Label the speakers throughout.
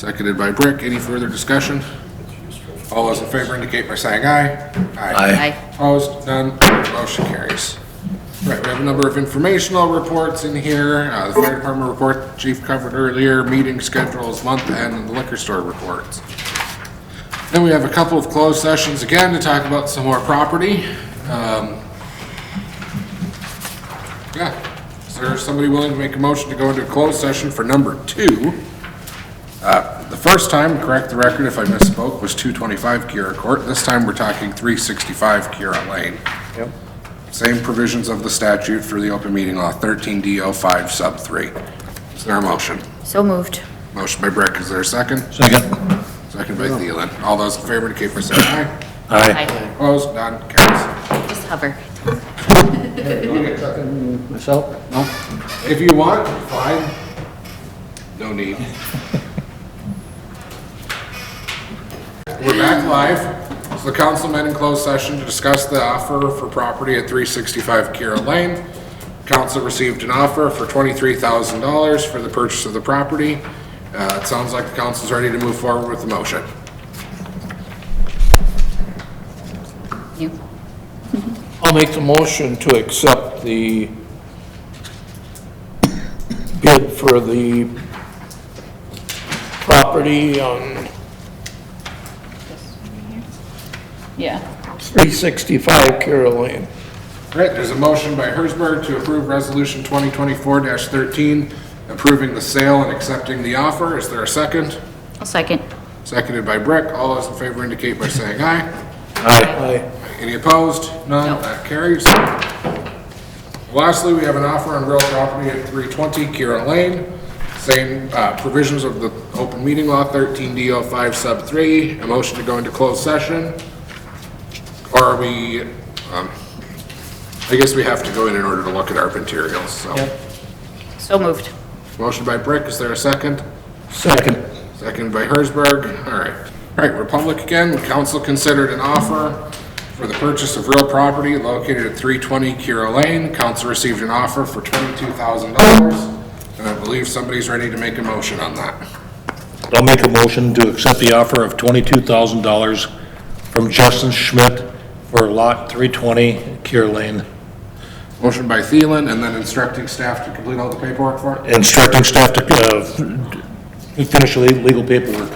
Speaker 1: Seconded by Brick. Any further discussion? All those in favor indicate by saying aye.
Speaker 2: Aye.
Speaker 1: Opposed? None. Motion carries. Right, we have a number of informational reports in here. Uh, The fire department report, chief covered earlier, meeting schedules, month end, and the liquor store reports. Then we have a couple of closed sessions again to talk about some more property. Um, Yeah, is there somebody willing to make a motion to go into a closed session for number two? The first time, correct the record if I misspoke, was 225 Kira Court. This time, we're talking 365 Kira Lane.
Speaker 3: Yep.
Speaker 1: Same provisions of the statute for the open meeting law, 13D05 sub 3. Is there a motion?
Speaker 2: So moved.
Speaker 1: Motion by Brick, is there a second?
Speaker 3: Second.
Speaker 1: Second by Thielen. All those in favor indicate by saying aye.
Speaker 3: Aye.
Speaker 2: Aye.
Speaker 1: Opposed, none, carries.
Speaker 2: Just hover.
Speaker 3: Myself?
Speaker 1: If you want, fine. No need. We're back live. It's the councilmen in closed session to discuss the offer for property at 365 Kira Lane. Council received an offer for $23,000 for the purchase of the property. Uh, It sounds like the council's ready to move forward with the motion.
Speaker 2: You.
Speaker 4: I'll make the motion to accept the bid for the property on
Speaker 5: Yeah,
Speaker 4: 365 Carroll Lane.
Speaker 1: All right, there's a motion by Hersberg to approve Resolution 2024-13, approving the sale and accepting the offer. Is there a second?
Speaker 2: I'll second.
Speaker 1: Seconded by Brick. All those in favor indicate by saying aye.
Speaker 4: Aye.
Speaker 1: Any opposed? None,
Speaker 2: No.
Speaker 1: that carries. Lastly, we have an offer on real property at 320 Kira Lane. Same uh, provisions of the open meeting law, 13D05 sub 3. A motion to go into closed session. Or are we, um, I guess we have to go in in order to look at our materials, so.
Speaker 2: So moved.
Speaker 1: Motion by Brick, is there a second?
Speaker 4: Second.
Speaker 1: Second by Hersberg. All right. All right, Republic again. Council considered an offer for the purchase of real property located at 320 Kira Lane. Council received an offer for $22,000, and I believe somebody's ready to make a motion on that.
Speaker 3: I'll make a motion to accept the offer of $22,000 from Justin Schmidt for lot 320 Kier Lane,
Speaker 1: Motion by Thielen, and then instructing staff to complete all the paperwork for it.
Speaker 3: instructing staff to uh, finish the legal paperwork.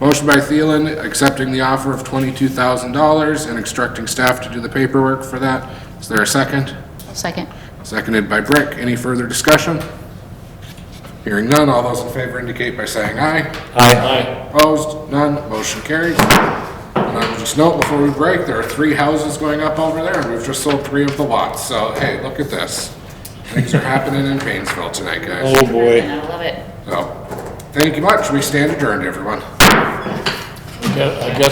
Speaker 1: Motion by Thielen, accepting the offer of $22,000 and instructing staff to do the paperwork for that. Is there a second?
Speaker 2: I'll second.
Speaker 1: Seconded by Brick. Any further discussion? Hearing none, all those in favor indicate by saying aye.
Speaker 3: Aye.
Speaker 1: Opposed, none, motion carries. And I will just note before we break, there are three houses going up over there, and we've just sold three of the lots, so hey, look at this. Things are happening in Painesville tonight, guys.
Speaker 3: Oh, boy.
Speaker 2: I love it.
Speaker 1: So, thank you much, we stand adjourned, everyone.
Speaker 4: I guess